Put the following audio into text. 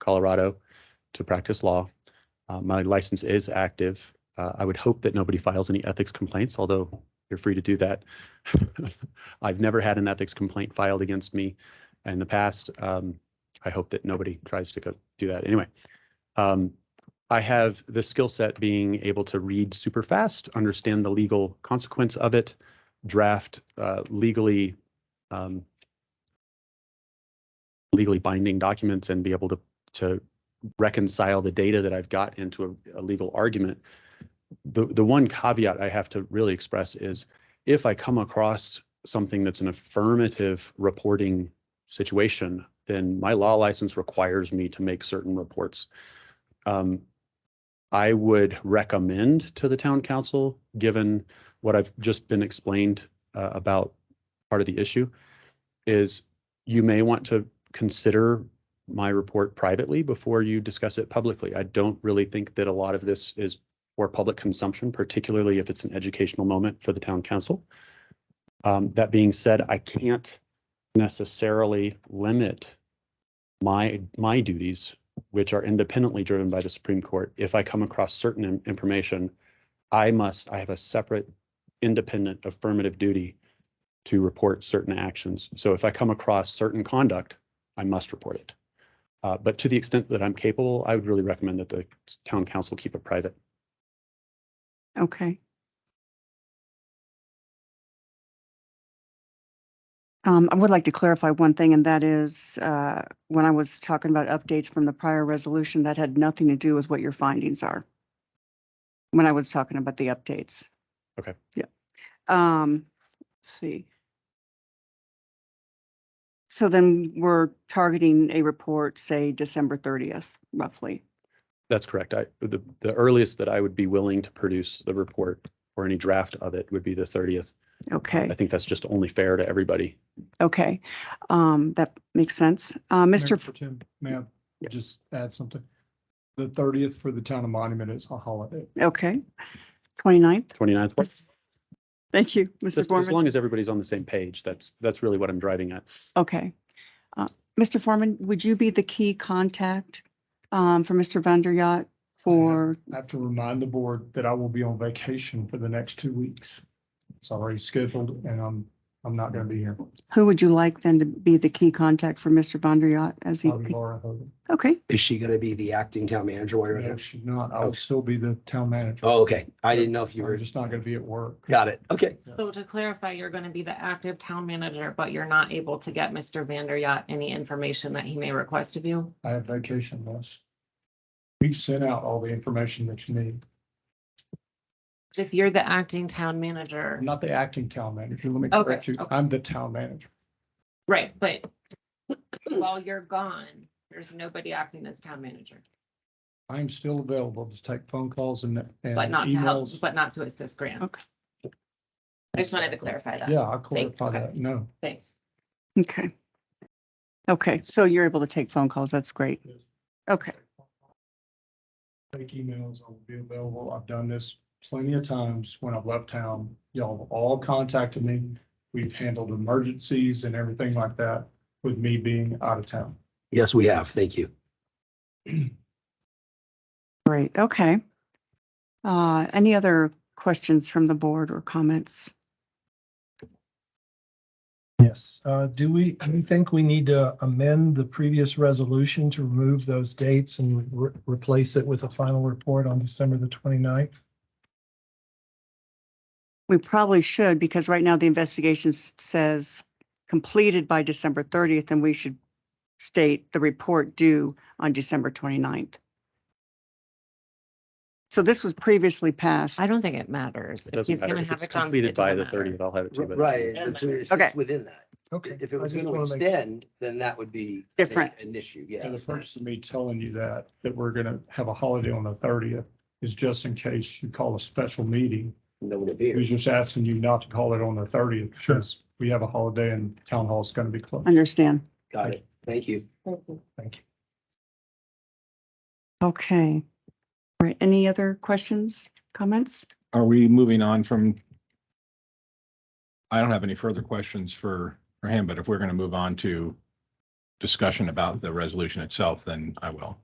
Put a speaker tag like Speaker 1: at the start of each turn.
Speaker 1: Colorado to practice law. Uh, My license is active. Uh, I would hope that nobody files any ethics complaints, although you're free to do that. I've never had an ethics complaint filed against me in the past. Um, I hope that nobody tries to go do that anyway. Um, I have the skill set being able to read super fast, understand the legal consequence of it, draft uh, legally um, legally binding documents and be able to to reconcile the data that I've got into a, a legal argument. The the one caveat I have to really express is if I come across something that's an affirmative reporting situation, then my law license requires me to make certain reports. Um, I would recommend to the town council, given what I've just been explained uh, about part of the issue, is you may want to consider my report privately before you discuss it publicly. I don't really think that a lot of this is for public consumption, particularly if it's an educational moment for the town council. Um, that being said, I can't necessarily limit my, my duties, which are independently driven by the Supreme Court. If I come across certain in- information, I must, I have a separate independent affirmative duty to report certain actions. So if I come across certain conduct, I must report it. Uh, but to the extent that I'm capable, I would really recommend that the town council keep it private.
Speaker 2: Okay. Um, I would like to clarify one thing, and that is, uh, when I was talking about updates from the prior resolution, that had nothing to do with what your findings are. When I was talking about the updates.
Speaker 1: Okay.
Speaker 2: Yeah. Um, let's see. So then we're targeting a report, say, December thirtieth, roughly.
Speaker 1: That's correct. I, the, the earliest that I would be willing to produce the report or any draft of it would be the thirtieth.
Speaker 2: Okay.
Speaker 1: I think that's just only fair to everybody.
Speaker 2: Okay, um, that makes sense. Uh,
Speaker 3: Mayor
Speaker 2: Mr. F-
Speaker 3: Pro Tem, May I just add something? The thirtieth for the town of Monument is a holiday.
Speaker 2: Okay, 29th.
Speaker 1: Twenty-ninth,
Speaker 2: Thank you, Mr.
Speaker 1: as
Speaker 2: Foreman.
Speaker 1: long as everybody's on the same page, that's, that's really what I'm driving at.
Speaker 2: Okay. Uh, Mr. Foreman, would you be the key contact, um, for Mr. Vanderyacht for,
Speaker 3: I have to remind the board that I will be on vacation for the next two weeks. It's already scheduled and I'm, I'm not gonna be here.
Speaker 2: who would you like then to be the key contact for Mr. Vanderyacht as he?
Speaker 3: Probably Laura Hogan.
Speaker 2: Okay,
Speaker 4: Is she gonna be the acting town manager while you're in
Speaker 3: No,
Speaker 4: there?
Speaker 3: she's not. I will still be the town manager.
Speaker 4: Oh, okay. I didn't know if you
Speaker 3: You're
Speaker 4: were,
Speaker 3: just not gonna be at work.
Speaker 4: got it. Okay.
Speaker 5: So to clarify, you're going to be the active town manager, but you're not able to get Mr. Vander Yacht any information that he may request of you?
Speaker 3: I have vacation less. We've sent out all the information that you need.
Speaker 5: If you're the acting town manager,
Speaker 3: I'm not the acting town manager. Let me
Speaker 5: Okay,
Speaker 3: correct you.
Speaker 5: okay.
Speaker 3: I'm the town manager.
Speaker 5: right, but while you're gone, there's nobody acting as town manager,
Speaker 3: I'm still available to take phone calls and, and
Speaker 5: but not to help,
Speaker 3: emails.
Speaker 5: but not to assist Grant.
Speaker 2: Okay.
Speaker 5: I just wanted to clarify that.
Speaker 3: Yeah, I'll
Speaker 5: Thank-
Speaker 3: clarify
Speaker 5: okay.
Speaker 3: that. No.
Speaker 5: Thanks.
Speaker 2: okay. Okay, so you're able to take phone calls. That's great. Okay,
Speaker 3: Take emails, I'll be available. I've done this plenty of times when I've left town. Y'all have all contacted me. We've handled emergencies and everything like that with me being out of town.
Speaker 4: Yes, we have. Thank you.
Speaker 2: great, okay. Uh, any other questions from the board or comments?
Speaker 6: Yes, uh, do we, do we think we need to amend the previous resolution to remove those dates and re- replace it with a final report on December the 29th?
Speaker 2: We probably should, because right now the investigation s- says completed by December 30th, and we should state the report due on December 29th. So this was previously passed.
Speaker 5: I don't think it matters.
Speaker 1: It
Speaker 5: If
Speaker 1: doesn't
Speaker 5: he's
Speaker 1: matter.
Speaker 5: going to
Speaker 1: If
Speaker 5: have
Speaker 1: it's
Speaker 5: it done.
Speaker 1: completed by the thirtieth, I'll have it to you. by the
Speaker 4: Right.
Speaker 1: 30th.
Speaker 4: it's- it's
Speaker 2: Okay.
Speaker 4: Within that.
Speaker 6: Okay.
Speaker 4: If it was
Speaker 6: I just
Speaker 4: gonna
Speaker 6: wanna make-
Speaker 4: extend, then that would be.
Speaker 2: Different.
Speaker 4: An issue,
Speaker 3: And the
Speaker 4: yes.
Speaker 3: purpose of me telling you that, that we're gonna have a holiday on the thirtieth is just in case you call a special meeting.
Speaker 4: No one
Speaker 3: He was
Speaker 4: appears.
Speaker 3: just asking you not to call it on the thirtieth because we have a holiday and town hall's gonna be closed.
Speaker 2: Understand.
Speaker 4: Got it. Thank you.
Speaker 6: Thank you.
Speaker 2: Okay. All right. Any other questions, comments?
Speaker 7: Are we moving on from? I don't have any further questions for, for him, but if we're going to move on to discussion about the resolution itself, then I will.